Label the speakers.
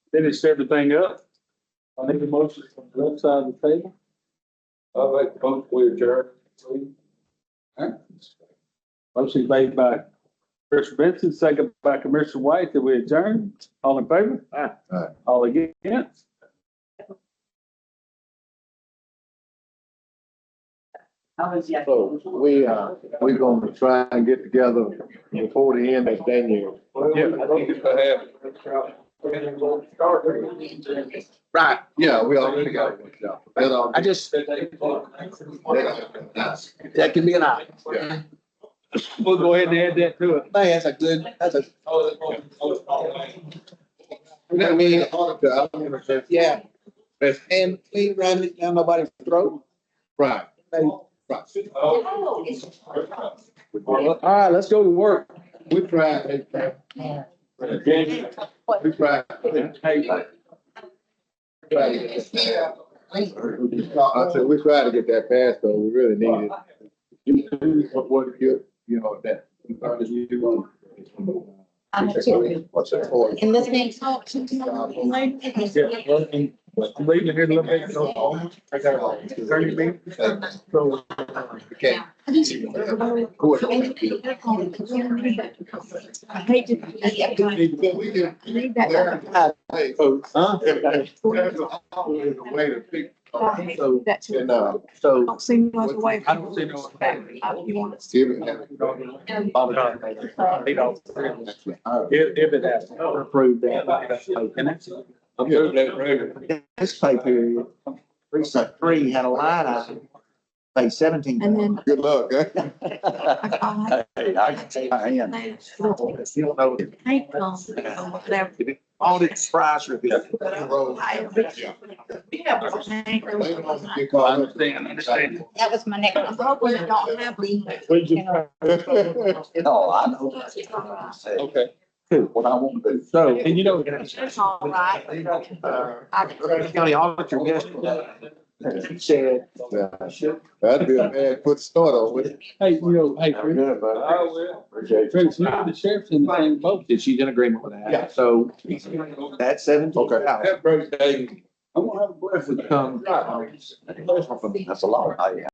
Speaker 1: finished everything up. I need a motion from the left side of the table.
Speaker 2: I'll make the motion we adjourn.
Speaker 1: Motion made by Commissioner Benson, second by Commissioner White that we adjourn. All in favor?
Speaker 2: Aye.
Speaker 1: All against?
Speaker 3: How is that?
Speaker 2: So, we, uh, We're gonna try and get together before the end of January.
Speaker 1: Yeah.
Speaker 4: Right,
Speaker 2: Yeah, we all together. That all.
Speaker 4: I just, that can be an option.
Speaker 1: We'll go ahead and add that to it.
Speaker 4: Man, that's a good, that's a,
Speaker 2: I mean, I don't understand.
Speaker 4: yeah. And clean around it, down nobody's throat.
Speaker 2: Right,
Speaker 4: Like,
Speaker 2: right.
Speaker 3: Oh, it's.
Speaker 4: All right, let's go to work.
Speaker 2: We tried, we tried.
Speaker 1: Hey,
Speaker 2: I said, we tried to get that passed, though, we really need it. You do what- what you, you know, that.
Speaker 5: I'm a chicken.
Speaker 2: What's that for?
Speaker 5: And this makes. Thirty
Speaker 1: I'm leaving here a little bit. so-
Speaker 2: uh,
Speaker 1: Thirty minutes. So,
Speaker 2: Okay. Who are-
Speaker 5: I hate to.
Speaker 2: We can-
Speaker 5: Leave that.
Speaker 2: Hey,
Speaker 4: Huh?
Speaker 2: there's always a way to fix-
Speaker 5: up. That's.
Speaker 2: And, uh, so.
Speaker 5: Don't see no other way.
Speaker 1: I don't see no other way.
Speaker 5: You want us.
Speaker 2: give it-
Speaker 1: They don't- If, if it happens.
Speaker 4: Approve This pay period, precinct three had a line item, like seventeen.
Speaker 5: And then.
Speaker 2: Good luck, eh?
Speaker 5: I call her.
Speaker 4: Hey, I can tell you, I am.
Speaker 5: Later, she'll take it.
Speaker 4: You don't know,
Speaker 5: Hey, Tom, or whatever.
Speaker 4: all these fries are good.
Speaker 5: I-
Speaker 1: I understand, I understand.
Speaker 6: That was my next.
Speaker 5: I'm hoping I don't have leave.
Speaker 4: No, I know.
Speaker 2: Okay.
Speaker 4: Do what I want to do. So.
Speaker 1: And you know.
Speaker 5: It's all right. I-
Speaker 4: County auditor yesterday, and she said,
Speaker 2: That'd be a bad foot start on with.
Speaker 1: Hey, you know, hey,
Speaker 4: "You're
Speaker 1: Chris,
Speaker 4: good, buddy." Appreciate it.
Speaker 1: Chris, you know, the sheriff's in the same boat.
Speaker 4: That she's in agreement with
Speaker 2: Yeah.
Speaker 4: that, so that's seventeen
Speaker 2: Okay.
Speaker 4: thousand.
Speaker 2: birthday. I'm gonna have a blessed
Speaker 4: Would come. That's a lot, I am.